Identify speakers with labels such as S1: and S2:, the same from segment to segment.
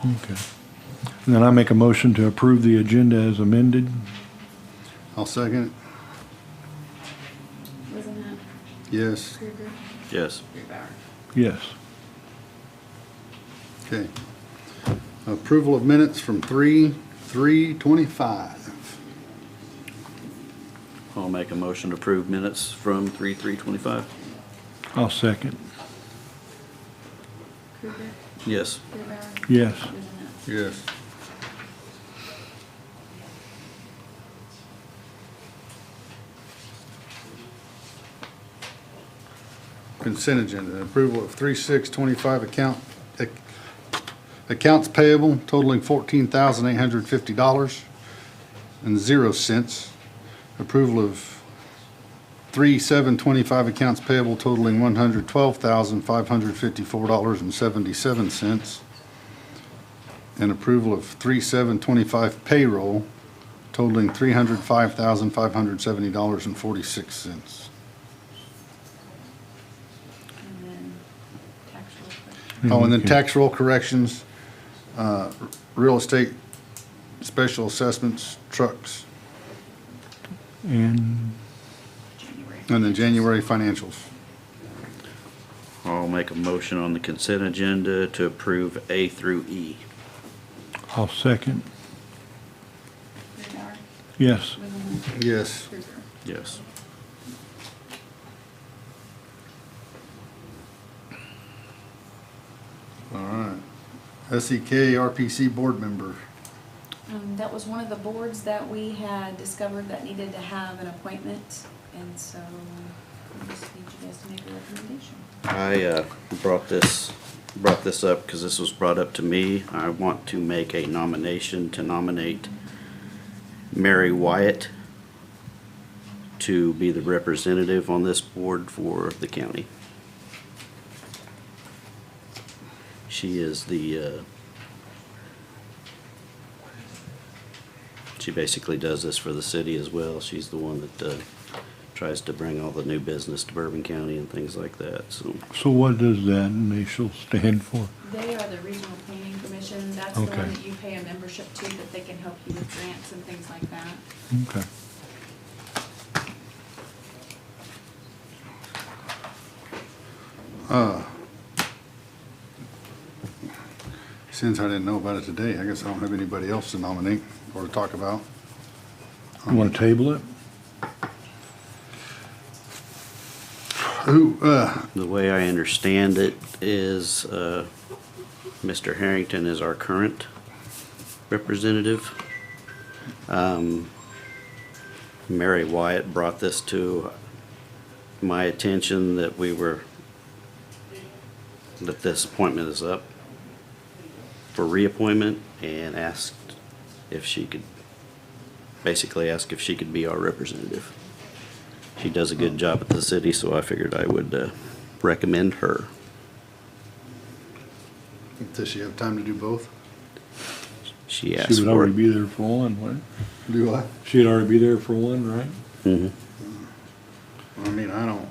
S1: Okay. And then I make a motion to approve the agenda as amended.
S2: I'll second
S3: Wasn't that
S2: it. Yes,
S3: Krueger?
S4: Yes.
S3: Grubauer.
S1: Yes.
S2: okay. Approval of minutes from three, three twenty-five.
S4: I'll make a motion to approve minutes from three three twenty-five.
S1: I'll second.
S3: Krueger?
S4: Yes.
S3: Grubauer?
S1: Yes.
S3: Wasn't that
S2: Yes. Consent agenda, approval of three, six twenty-five account, ac- accounts payable totaling fourteen thousand eight hundred fifty dollars and zero cents. Approval of three, seven twenty-five accounts payable totaling one hundred twelve thousand five hundred fifty-four dollars and seventy-seven cents and approval of three seven twenty-five payroll totaling three hundred five thousand five hundred seventy dollars and forty-six cents.
S3: And then tax roll quick.
S2: Oh, and then tax roll corrections, uh, real estate, special assessments, trucks,
S1: And
S3: January.
S2: and then January financials.
S4: I'll make a motion on the consent agenda to approve A through E.
S1: I'll second.
S3: Grubauer?
S1: Yes.
S3: Wasn't that
S2: Yes.
S3: Krueger?
S4: Yes.
S2: All right. E SEK RPC board member.
S3: Um, that was one of the boards that we had discovered that needed to have an appointment, and so I just need you guys to make a recommendation.
S4: I uh, brought this, brought this up because this was brought up to me. I want to make a nomination to nominate Mary Wyatt to be the representative on this board for the county. She is the, uh, she basically does this for the city as well. She's the one that uh, tries to bring all the new business to Bourbon County and things like that, so.
S1: So what does that initial stand for?
S3: They are the regional planning commission, that's the
S1: Okay.
S3: one that you pay a membership to, that they can help you with grants and things like that.
S1: Okay.
S2: Since I didn't know about it today, I guess I don't have anybody else to nominate or to talk about.
S1: You want to table it?
S2: Who, uh,
S4: The way I understand it is, uh, Mr. Harrington is our current representative. Um, Mary Wyatt brought this to my attention that we were, that this appointment is up for reappointment and asked if she could, basically asked if she could be our representative. She does a good job at the city, so I figured I would uh, recommend her.
S2: does she have time to do both?
S4: She
S1: She
S4: asked
S1: would
S4: for
S1: already
S4: it.
S1: be there for one, right?
S2: Do I?
S1: She'd already be there for one, right?
S4: Mhm.
S2: I mean, I don't.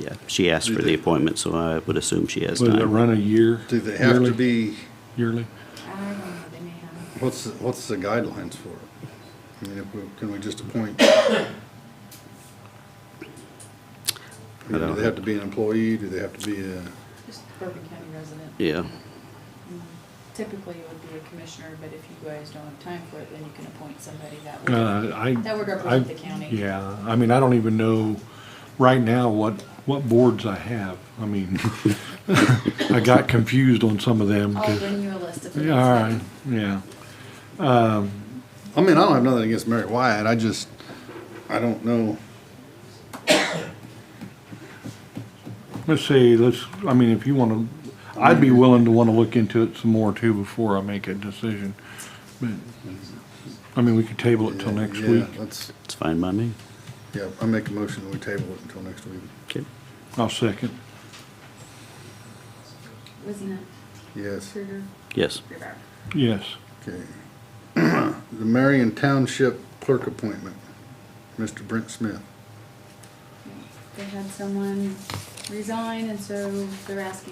S4: Yeah, she asked for the appointment, so I would assume she has
S1: Would it
S4: time.
S1: run a year?
S2: Do they have to
S1: Yearly?
S2: be,
S1: Yearly?
S3: I don't know, they may have,
S2: what's, the- what's the guidelines for it? I mean, if we, can we just appoint? I mean, Do
S4: don't-
S2: they have to be an employee? Do they have to be a,
S3: just Bourbon County resident.
S4: Yeah,
S3: Typically, it would be a commissioner, but if you guys don't have time for it, then you can appoint somebody that
S1: Uh, I.
S3: That would
S1: I-
S3: represent the county.
S1: Yeah, I mean, I don't even know right now what, what boards I have. I mean, I got confused on some of them. 'cause-
S3: I'll bring Oh, you a list of things.
S1: Yeah, all right, yeah.
S2: I mean, I don't have nothing against Mary Wyatt. I just, I don't know.
S1: Let's see, let's, I mean, if you wanna, I'd be willing to wanna look into it some more too before I make a decision. But, I mean, we could table it till next
S2: Yeah,
S1: week.
S2: Let's,
S4: it's fine by me.
S2: yeah, I make a motion that we table it until next week.
S4: Okay.
S1: I'll second.
S3: Wasn't it
S2: Yes,
S3: Krueger,
S4: Yes,
S3: Grubauer?
S1: Yes,
S2: okay. The Marion Township Clerk appointment, Mr. Brent Smith.
S3: They had someone resign, and so they're asking